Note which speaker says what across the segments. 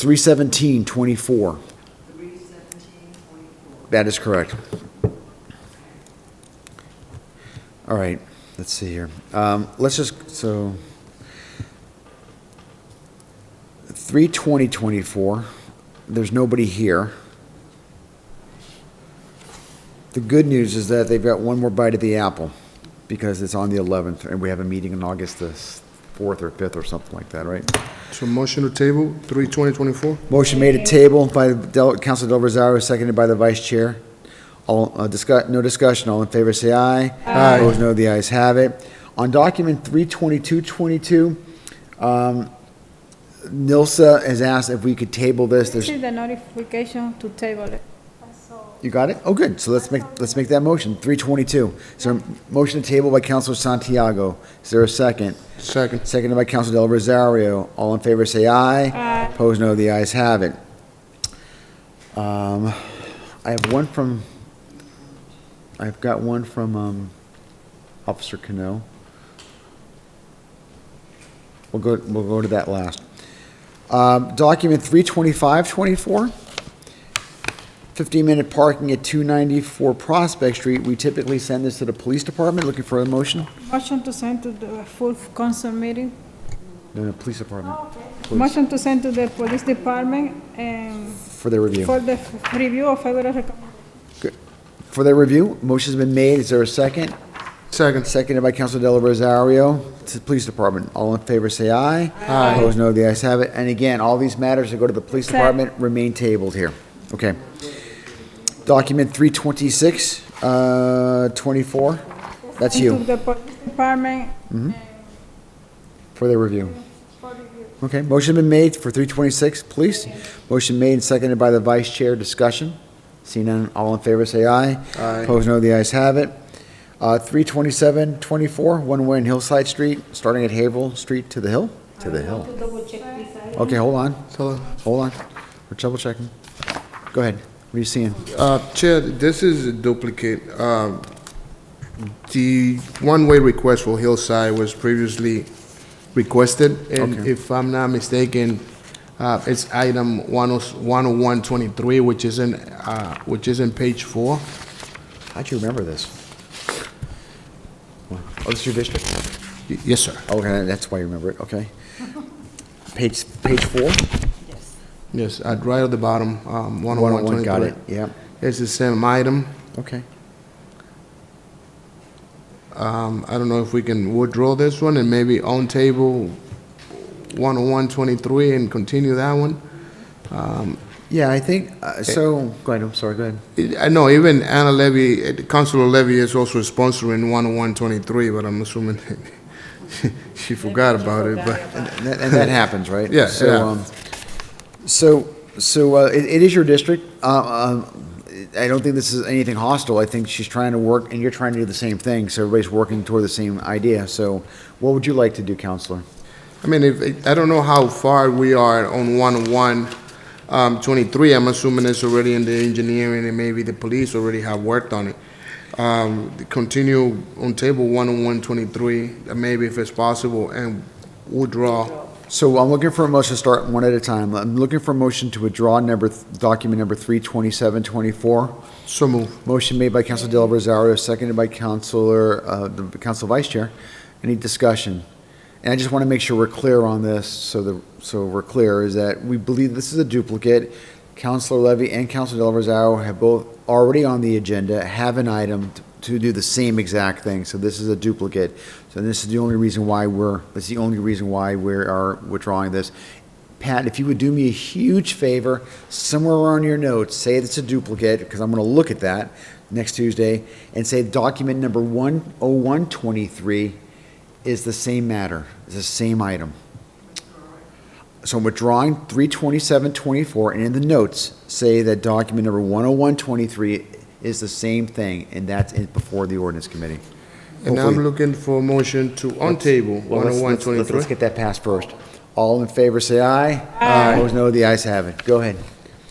Speaker 1: Three seventeen twenty-four. That is correct. All right, let's see here. Um, let's just, so. Three twenty twenty-four, there's nobody here. The good news is that they've got one more bite at the apple because it's on the eleventh and we have a meeting on August the fourth or fifth or something like that, right?
Speaker 2: So motion to table, three twenty twenty-four?
Speaker 1: Motion made at table by Del- Council Del Rosario, seconded by the Vice Chair. All, uh, discuss, no discussion, all in favor, say aye.
Speaker 2: Aye.
Speaker 1: Opposed, no, the ayes have it. On document three twenty-two twenty-two, um, NILSA has asked if we could table this,
Speaker 3: This
Speaker 1: there's,
Speaker 3: is the notification to table it.
Speaker 1: you got it? Oh, good, so let's make, let's make that motion, three twenty-two. So, motion to table by Councilor Santiago, is there a second?
Speaker 2: Second.
Speaker 1: Seconded by Council Del Rosario. All in favor, say aye. Aye. Opposed, no. The ayes have it. Um, I have one from, I've got one from, um, Officer Cano. We'll go, we'll go to that last. Um, document three twenty-five twenty-four. 15-minute parking at 294 Prospect Street. We typically send this to the police department. Looking for a motion?
Speaker 3: Motion to send to the full council meeting.
Speaker 1: No, no, police department
Speaker 3: Motion to send to the police department and
Speaker 1: for their review.
Speaker 3: for the f- review of federal recommendation.
Speaker 1: For their review, motion's been made, is there a second?
Speaker 2: Second.
Speaker 1: Seconded by Council Del Rosario to the Police Department. All in favor, say aye. Aye. Opposed, no, the ayes have it. And again, all these matters that go to the Police
Speaker 3: Okay.
Speaker 1: Department remain tabled here. Okay. Document 326, uh, 24, that's
Speaker 3: To
Speaker 1: you,
Speaker 3: the police department.
Speaker 1: for their review. Okay, motion been made for 326, Police. Motion made and seconded by the Vice Chair, discussion. Seeing none, all in favor, say aye.
Speaker 2: Aye.
Speaker 1: Opposed, no, the ayes have it. Uh, 32724, one-way in Hillside Street, starting at Havel Street to the hill? To the hill. Okay, hold on,
Speaker 2: Tell her.
Speaker 1: hold on. We're double checking. Go ahead. What are you seeing?
Speaker 2: Uh, Chair, this is a duplicate. Um, The one-way request for Hillside was previously requested, and
Speaker 1: Okay.
Speaker 2: if I'm not mistaken, uh, it's item oh, 10123, which is in, uh, which is in page four.
Speaker 1: How'd you remember this? What? Oh, this is your district?
Speaker 2: Y- Yes, sir.
Speaker 1: Oh, Okay, that's why you remember it, okay. Page, page four?
Speaker 2: Yes, at right at the bottom, um,
Speaker 1: 101,
Speaker 2: 10123.
Speaker 1: got it, yeah,
Speaker 2: It's the same item.
Speaker 1: okay.
Speaker 2: Um, I don't know if we can withdraw this one and maybe on table 10123 and continue that one.
Speaker 1: Yeah, I think, uh, so, go ahead, I'm sorry, go ahead.
Speaker 2: It- I know even Anna Levy, uh, Councilor Levy is also sponsoring 10123, but I'm assuming she forgot about it, but,
Speaker 1: And that- and that happens, right?
Speaker 2: Yeah,
Speaker 1: So,
Speaker 2: yeah.
Speaker 1: um, So, so uh, it it is your district. Uh, um, I don't think this is anything hostile. I think she's trying to work, and you're trying to do the same thing, so everybody's working toward the same idea. So what would you like to do, counselor?
Speaker 2: I mean, if, I don't know how far we are on 10123. I'm assuming it's already in the engineering and maybe the police already have worked on it. Um, Continue on table 10123, uh, maybe if it's possible, and withdraw.
Speaker 1: So I'm looking for a motion to start one at a time. I'm looking for a motion to withdraw number, th- document number 32724.
Speaker 2: So move.
Speaker 1: Motion made by Council Del Rosario, seconded by Councilor, uh, the Council Vice Chair. Any discussion? And I just want to make sure we're clear on this, so the, so we're clear, is that we believe this is a duplicate. Councilor Levy and Council Del Rosario have both already on the agenda, have an item t- to do the same exact thing, so this is a duplicate. So this is the only reason why we're, that's the only reason why we are withdrawing this. Pat, if you would do me a huge favor, somewhere on your notes, say it's a duplicate, because I'm going to look at that next Tuesday, and say document number 10123 is the same matter, is the same item. So I'm withdrawing 32724, and in the notes, say that document number 10123 is the same thing, and that's in- before the ordinance committee.
Speaker 2: And I'm
Speaker 1: Hopefully-
Speaker 2: looking for a motion to, on table,
Speaker 1: well, let's- let's- let's-
Speaker 2: 10123.
Speaker 1: Let's get that passed first. All in favor, say aye. Aye. Opposed, no, the ayes have it. Go ahead.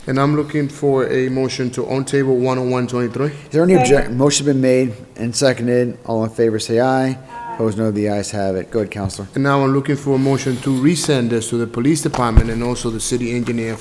Speaker 2: And I'm looking for a motion to on table 10123.
Speaker 1: Is there any objection?
Speaker 3: Second.
Speaker 1: Motion been made and seconded. All in favor, say aye. Opposed, no. The ayes have it. Go ahead, Counselor.
Speaker 2: And now I'm looking for a motion to resend this to the police department and also the city engineer